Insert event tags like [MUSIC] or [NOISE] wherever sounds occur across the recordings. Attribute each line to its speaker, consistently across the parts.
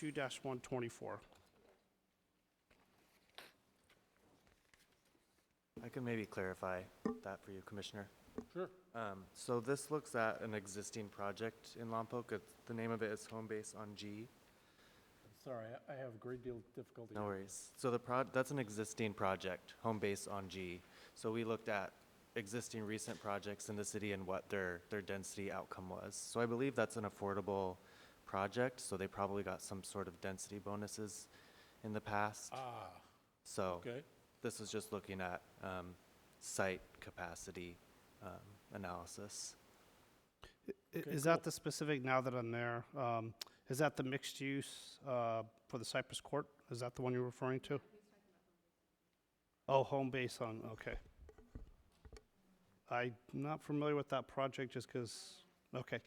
Speaker 1: 2-124.
Speaker 2: I can maybe clarify that for you, Commissioner.
Speaker 3: Sure.
Speaker 2: Um, So this looks at an existing project in Lompoc. It's- The name of it is Home Base on G.
Speaker 3: Sorry, I- I have a great deal of difficulty.
Speaker 2: No worries. So the pro, that's an existing project, Home Base on G. So we looked at existing recent projects in the city and what their, their density outcome was. So I believe that's an affordable project, so they probably got some sort of density bonuses in the past.
Speaker 3: Ah,
Speaker 2: So
Speaker 3: okay.
Speaker 2: this is just looking at um, site capacity um, analysis.
Speaker 1: I-
Speaker 3: Okay,
Speaker 1: Is that
Speaker 3: cool.
Speaker 1: the specific, now that I'm there, um, is that the mixed use uh, for the Cypress Court? Is that the one you're referring to? Oh, home base on, okay. I'm not familiar with that project just because, okay.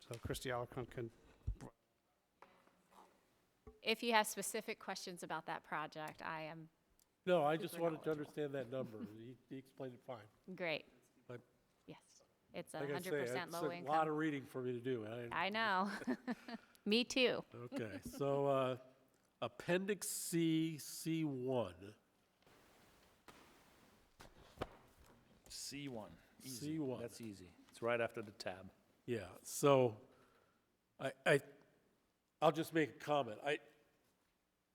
Speaker 1: So Christie Alarcon can,
Speaker 4: If you have specific questions about that project, I am
Speaker 3: No, I just
Speaker 4: Super
Speaker 3: wanted to
Speaker 4: knowledgeable.
Speaker 3: understand that number. He, he explained it fine.
Speaker 4: great.
Speaker 3: But-
Speaker 4: Yes, it's a
Speaker 3: Like I
Speaker 4: hundred
Speaker 3: say,
Speaker 4: percent
Speaker 3: it's
Speaker 4: low
Speaker 3: A lot
Speaker 4: income.
Speaker 3: of reading for me to do. and I-
Speaker 4: [LAUGHS] I know. Me too.
Speaker 3: Okay, so uh, Appendix C, C1.
Speaker 5: C1. Easy.
Speaker 3: C1.
Speaker 5: That's easy. It's right after the tab.
Speaker 3: Yeah, so I, I, I'll just make a comment. I,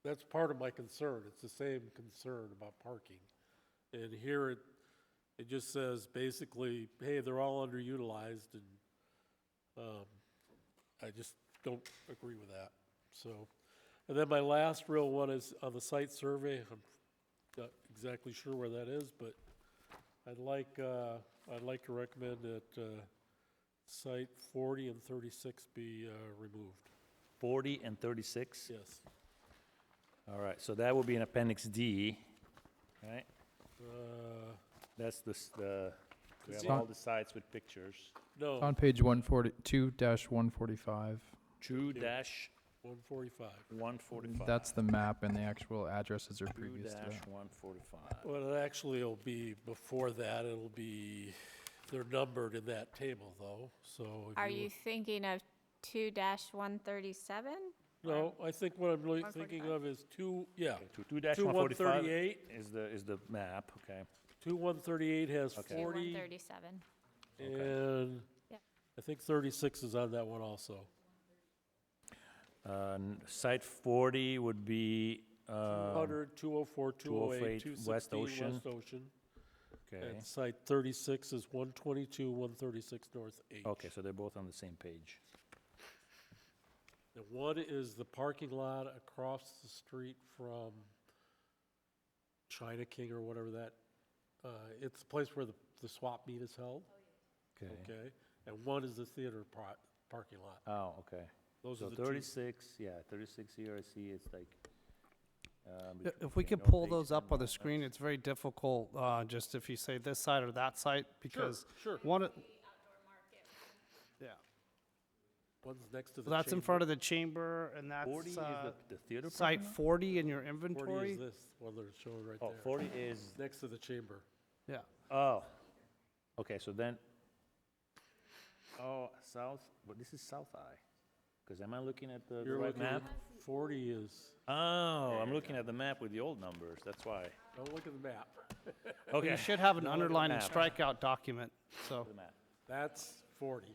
Speaker 3: that's part of my concern. It's the same concern about parking. And here it, it just says basically, hey, they're all underutilized and, um, I just don't agree with that, so. And then my last real one is on the site survey. I'm not exactly sure where that is, but I'd like, uh, I'd like to recommend that, uh, Site 40 and 36 be uh, removed.
Speaker 5: 40 and 36?
Speaker 3: Yes.
Speaker 5: All right, so that will be in Appendix D, right?
Speaker 3: Uh,
Speaker 5: That's the, s- the, we have
Speaker 3: See-
Speaker 5: all the sites with pictures.
Speaker 3: No,
Speaker 6: On page 142 145.
Speaker 5: 2 dash
Speaker 3: 145.
Speaker 5: 145.
Speaker 6: That's the map, and the actual addresses are
Speaker 5: 2
Speaker 6: previous to
Speaker 5: dash
Speaker 6: that.
Speaker 5: 145.
Speaker 3: Well, it actually will be before that, it'll be, they're numbered in that table, though, so. if
Speaker 4: Are you thinking of two dash one thirty-seven?
Speaker 3: No, I think what I'm really thinking
Speaker 4: 145?
Speaker 3: of is two, yeah.
Speaker 5: Okay, two- 2 dash
Speaker 3: Two
Speaker 5: 145
Speaker 3: 138.
Speaker 5: is the, is the map, okay.
Speaker 3: 2138 has
Speaker 5: Okay.
Speaker 4: Two one
Speaker 3: 40,
Speaker 4: thirty-seven.
Speaker 3: and
Speaker 4: Yep.
Speaker 3: I think 36 is on that one also.
Speaker 5: Uh, n- Site 40 would be, uh,
Speaker 3: 100, 204, 208,
Speaker 5: 208, West
Speaker 3: 216
Speaker 5: Ocean.
Speaker 3: West Ocean.
Speaker 5: okay,
Speaker 3: And site 36 is 122, 136 North H.
Speaker 5: okay, so they're both on the same page.
Speaker 3: The one is the parking lot across the street from China King or whatever that, uh, it's the place where the, the swap meet is held, okay? And one is the theater pro- parking lot.
Speaker 5: Oh, okay.
Speaker 3: Those
Speaker 5: So
Speaker 3: are the two.
Speaker 5: thirty-six, yeah, thirty-six here, I see it's like. um,
Speaker 1: I- if we
Speaker 5: between
Speaker 1: could
Speaker 5: North
Speaker 1: pull
Speaker 5: Beach
Speaker 1: those up
Speaker 5: and
Speaker 1: on the
Speaker 5: Lawrence.
Speaker 1: screen, it's very difficult, uh, just if you say this side or that side, because
Speaker 3: Sure,
Speaker 1: one, of- yeah,
Speaker 3: one's next to the
Speaker 1: Well, that's in
Speaker 3: chamber.
Speaker 1: front of the chamber, and that's
Speaker 5: Forty is
Speaker 1: uh,
Speaker 5: the, the theater
Speaker 1: site
Speaker 5: parking lot?
Speaker 1: 40 in your
Speaker 3: Forty is
Speaker 1: inventory.
Speaker 3: this, one they're showing right
Speaker 5: Oh,
Speaker 3: there.
Speaker 5: forty is,
Speaker 3: Next to the chamber.
Speaker 1: Yeah,
Speaker 5: oh, okay, so then, oh, south, but this is South Eye, because am I looking at the the
Speaker 3: You're
Speaker 5: right
Speaker 3: looking, at
Speaker 5: map?
Speaker 3: forty is,
Speaker 5: Oh, I'm looking at the map with the old numbers, that's why.
Speaker 3: don't look at the map. [LAUGHS]
Speaker 5: Okay.
Speaker 1: you should have an
Speaker 5: No, look at the
Speaker 1: underline and
Speaker 5: map.
Speaker 1: strikeout document, so,
Speaker 5: The map.
Speaker 3: That's forty.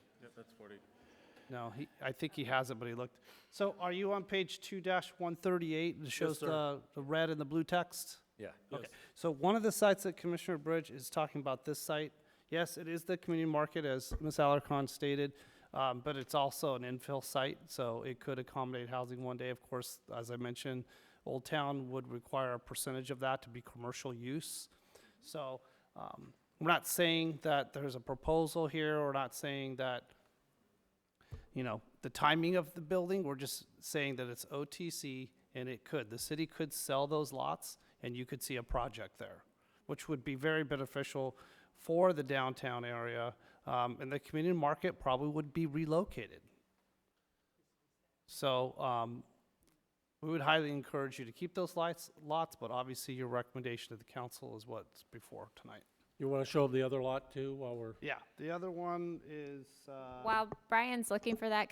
Speaker 1: no, he, I think he has it, but he looked. So are you on page 2-138, that shows
Speaker 3: sir.
Speaker 1: the, the red and the blue text?
Speaker 5: Yeah,
Speaker 1: Okay, so one of the sites that Commissioner Bridge is talking about, this site, yes, it is the community market, as Ms. Alarcon stated, um, but it's also an infill site, so it could accommodate housing one day. Of course, as I mentioned, Old Town would require a percentage of that to be commercial use. So, um, we're not saying that there's a proposal here, we're not saying that, you know, the timing of the building, we're just saying that it's OTC and it could, the city could sell those lots and you could see a project there, which would be very beneficial for the downtown area. Um, and the community market probably would be relocated. So, um, we would highly encourage you to keep those lights, lots, but obviously your recommendation to the council is what's before tonight.
Speaker 3: You wanna show them the other lot too while we're?
Speaker 1: Yeah, the other one is, uh.
Speaker 4: While Brian's looking for that,